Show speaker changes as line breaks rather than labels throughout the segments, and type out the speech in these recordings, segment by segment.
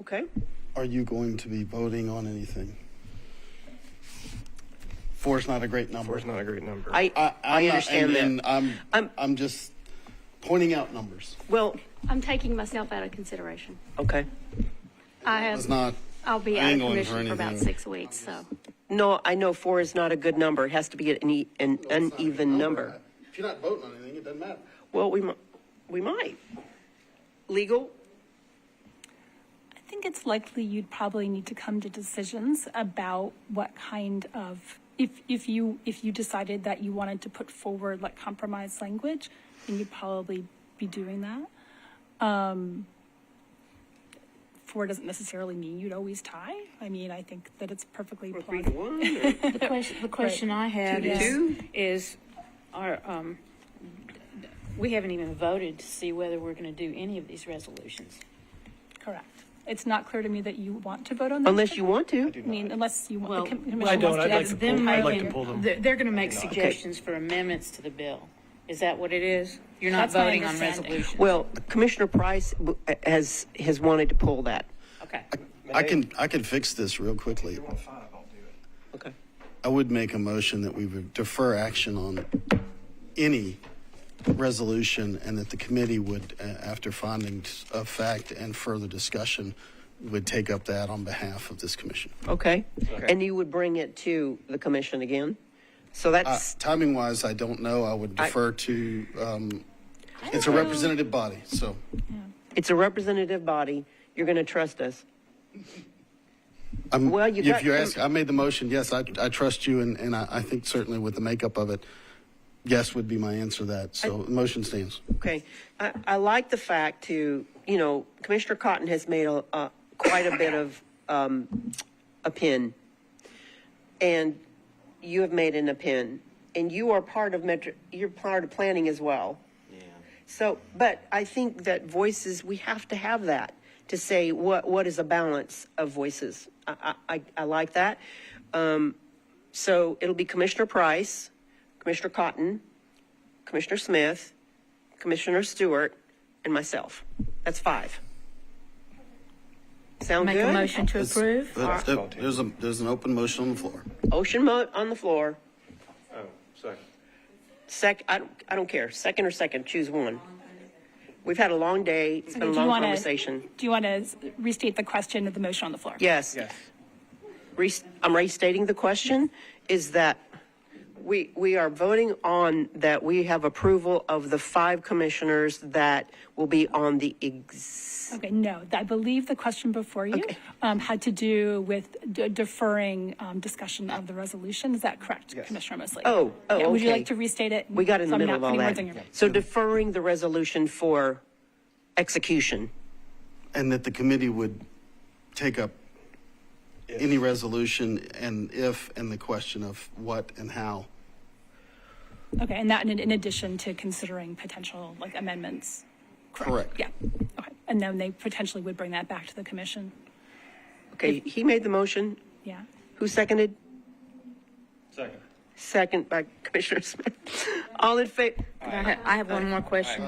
Okay.
Are you going to be voting on anything? Four's not a great number.
Four's not a great number.
I, I,
I, I'm not- and-
understand
and
that.
I'm,
I'm-
I'm, just pointing out numbers.
well,
I'm taking myself out of consideration.
okay.
I
It's
have,
not.
I'll be
I
out of
ain't going
commission for about
anything.
six weeks, so.
No, I know four is not a good number. It has to be an, e- an
It's not a good
uneven number.
If you're not voting on anything, it doesn't matter.
Well, we, mi- we might. Legal?
I think it's likely you'd probably need to come to decisions about what kind of, if, if you, if you decided that you wanted to put forward like compromise language, then you'd probably be doing that. Um, Four doesn't necessarily mean you'd always tie. I mean, I think that it's perfectly
Or
plausible.
three to one? or-
The question, the question I have
Two to
is,
two?
is, are, um, we haven't even voted to see whether we're gonna do any of these resolutions.
Correct. It's not clear to me that you want to vote on this.
Unless you want to.
I mean, unless you want, the com- commission
I
wants
don't.
to
I'd like
do
That's
to
it.
pull,
them
I'd like to
making-
pull them.
They're, they're gonna make suggestions for amendments to the bill. Is that what it is? You're not
That's my
voting on
understanding.
resolutions?
Well, Commissioner Price w- has, has wanted to pull that.
Okay.
I can, I can fix this real quickly.
five, I'll do it.
Okay.
I would make a motion that we would defer action on any resolution and that the committee would, uh, after findings of fact and further discussion, would take up that on behalf of this commission.
Okay. And you would bring it to the commission again? So
Uh,
that's,
timing wise, I don't know. I would
I-
defer to, um, it's a representative body, so.
it's a representative body. You're going to trust us.
I'm-
Well, you got
If you
some-
ask, I made the motion, yes, I, I trust you and, and I, I think certainly with the makeup of it, yes would be my answer to that. So the motion stands.
Okay. I, I like the fact to, you know, Commissioner Cotton has made a, a quite a bit of, um, a pin. And you have made an a pin. And you are part of metro, you're part of planning as well. Yeah. So, but I think that voices, we have to have that to say what, what is a balance of voices. I, I, I- I like that. Um, so it'll be Commissioner Price, Commissioner Cotton, Commissioner Smith, Commissioner Stewart, and myself. That's five. Sound
Make
good?
a motion to approve?
There- there- There's a, there's an open motion on the floor.
Ocean mo- on the floor.
Oh, second.
Sec, I don't, I don't care. Second or second, choose one. We've had a long day. It's been a
Okay, do you
long
wanna-
conversation.
Do you want to restate the question of the motion on the floor?
Yes.
Yes.
Re- I'm restating the question, is that we, we are voting on that we have approval of the five commissioners that will be on the ex,
Okay, no, th- I believe the question before you
Okay.
um, had to do with de- deferring um, discussion of the resolution. Is that correct, Commissioner Mosley?
Oh, oh,
Yeah, Would you
okay.
like to restate it?
we got in
So
the
I'm
middle
not
of all
putting words
that.
in your mouth.
So deferring the resolution for execution.
And that the committee would take up any resolution and if, and the question of what and how.
Okay, and that in in addition to considering potential like amendments?
Correct.
Yeah, okay. And then they potentially would bring that back to the commission?
Okay, he made the motion.
Yeah.
Who seconded?
Second.
Second by Commissioner Smith. All in favor?
I ha- I have one more question.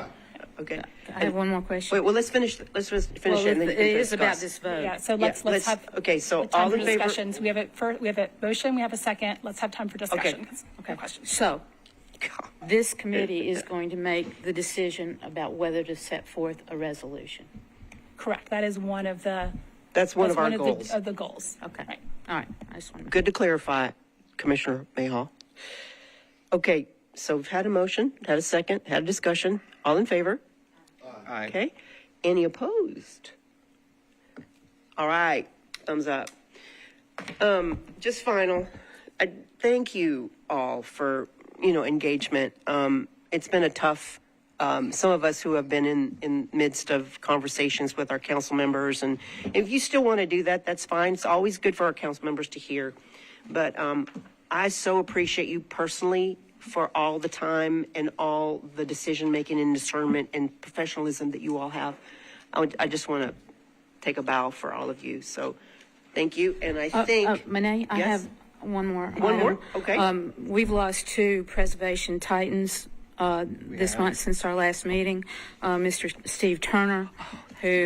Okay.
I have one more question.
Wait, well, let's finish, let's finish it
Well,
and then
it
we can
it is about
discuss.
this vote.
Yeah, so let's,
Yeah, let's-
let's have.
okay, so
time
all
for
in favor-
Discussions, we have a first, we have a motion, we have a second, let's have time for discussion. 'cause-
Okay,
Questions.
so this committee is going to make the decision about whether to set forth a resolution.
Correct, that is one of the.
That's one of
that's
our
the-
goals.
Of the goals.
Okay,
Right.
all right, I just want to.
Good to clarify, Commissioner Mayhaw. Okay, so we've had a motion, had a second, had a discussion. All in favor?
Aye.
Okay. Any opposed? All right, thumbs up. Um, just final, I thank you all for, you know, engagement. Um, it's been a tough, um, some of us who have been in, in midst of conversations with our council members. And if you still want to do that, that's fine. It's always good for our council members to hear. But, um, I so appreciate you personally for all the time and all the decision-making and discernment and professionalism that you all have. I would, I just want to take a bow for all of you. So thank you. And I think.
Uh, Monet, I
Yes?
have one more.
One more?
item.
Okay.
Um, We've lost two preservation titans uh, this month since our last meeting. Uh, Mr. Steve Turner, who